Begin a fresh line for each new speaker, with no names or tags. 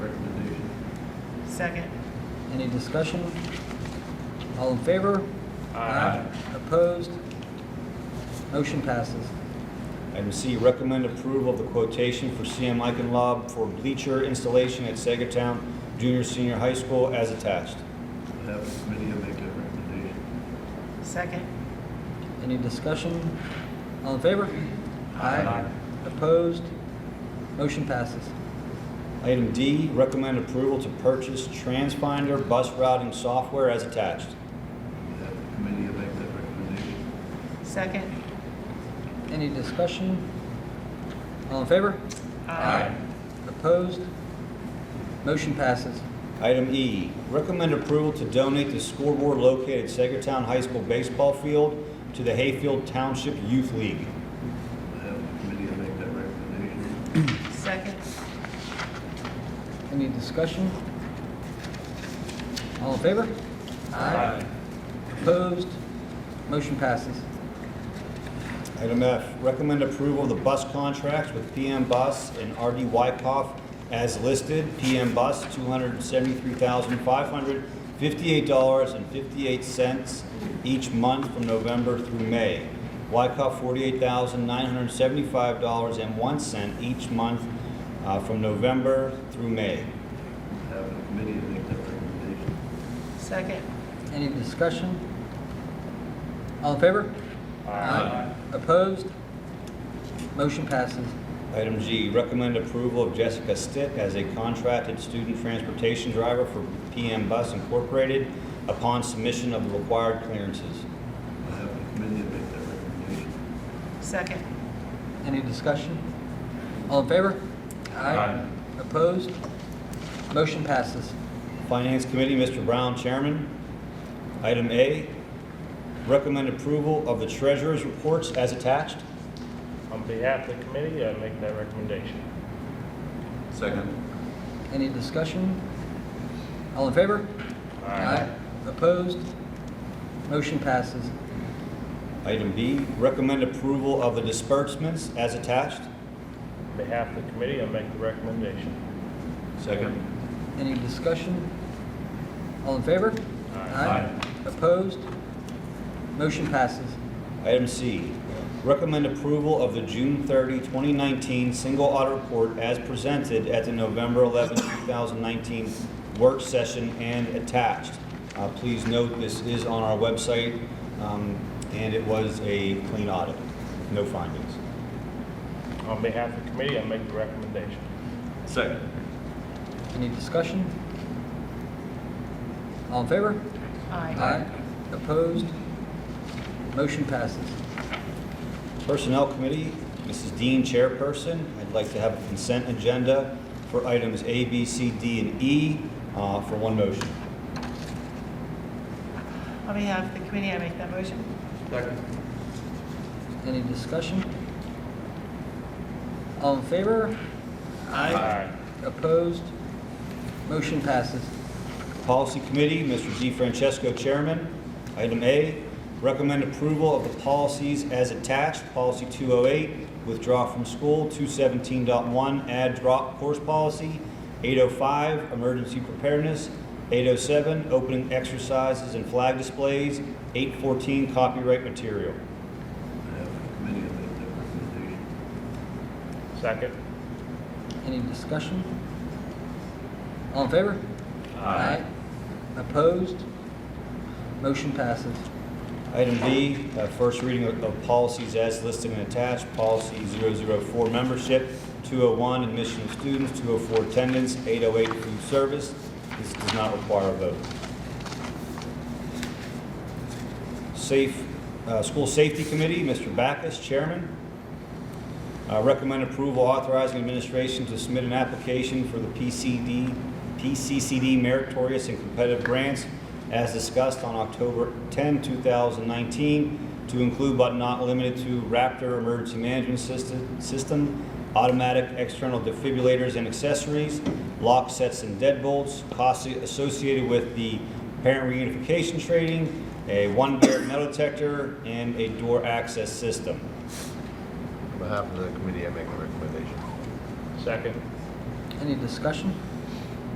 Second.
Any discussion? All in favor?
Aye.
Opposed? Motion passes.
Item C, recommend approval of the quotation for CM Eichenlob for bleacher installation at Sagertown Junior Senior High School as attached.
Have the committee make that recommendation.
Second.
Any discussion? All in favor? Opposed? Motion passes.
Item D, recommend approval to purchase TransFinder bus routing software as attached.
Have the committee make that recommendation.
Second.
Any discussion? All in favor? Opposed? Motion passes.
Item E, recommend approval to donate the scoreboard located at Sagertown High School baseball field to the Hayfield Township Youth League.
Have the committee make that recommendation.
Second.
Any discussion? All in favor? Opposed? Motion passes.
Item F, recommend approval of the bus contracts with PM Bus and RD Wykoff as listed. PM Bus, $273,558.58 each month from November through May. Wykoff, $48,975.01 each month uh, from November through May.
Have the committee make that recommendation.
Second.
Any discussion? All in favor? Opposed? Motion passes.
Item G, recommend approval of Jessica Stitt as a contracted student transportation driver for PM Bus Incorporated upon submission of the required clearances.
Have the committee make that recommendation.
Second.
Any discussion? All in favor? Opposed? Motion passes.
Finance Committee, Mr. Brown, Chairman. Item A, recommend approval of the treasurer's reports as attached.
On behalf of the committee, I make that recommendation.
Second.
Any discussion? All in favor? Opposed? Motion passes.
Item B, recommend approval of the disbursements as attached.
On behalf of the committee, I make the recommendation.
Second.
Any discussion? All in favor? Opposed? Motion passes.
Item C, recommend approval of the June 30, 2019 single audit report as presented at the November 11, 2019 work session and attached. Uh, Please note, this is on our website, um, and it was a clean audit, no findings.
On behalf of the committee, I make the recommendation.
Second.
Any discussion? All in favor?
Aye.
Opposed? Motion passes.
Personnel Committee, Mrs. Dean, Chairperson. I'd like to have a consent agenda for items A, B, C, D, and E uh, for one motion.
On behalf of the committee, I make that motion.
Any discussion? All in favor?
Aye.
Opposed? Motion passes.
Policy Committee, Mr. D. Francesco, Chairman. Item A, recommend approval of the policies as attached. Policy 208, withdraw from school, 217.1, add drop course policy, 805, emergency preparedness, 807, opening exercises and flag displays, 814, copyright material.
Have the committee make that recommendation.
Second.
Any discussion? All in favor? Opposed? Motion passes.
Item B, uh, first reading of- of policies as listed and attached. Policy 004, membership, 201, admission of students, 204, attendance, 808, food service. This does not require a vote. Safe, uh, School Safety Committee, Mr. Backus, Chairman. Uh, Recommend approval authorizing administration to submit an application for the PCD, PCCD meritorious and competitive grants as discussed on October 10, 2019, to include but not limited to Raptor Emergency Management System- System, automatic external defibrillators and accessories, lock sets and deadbolts, costs associated with the parent reunification training, a one-bear metal detector, and a door access system.
On behalf of the committee, I make a recommendation.
Second.
Any discussion?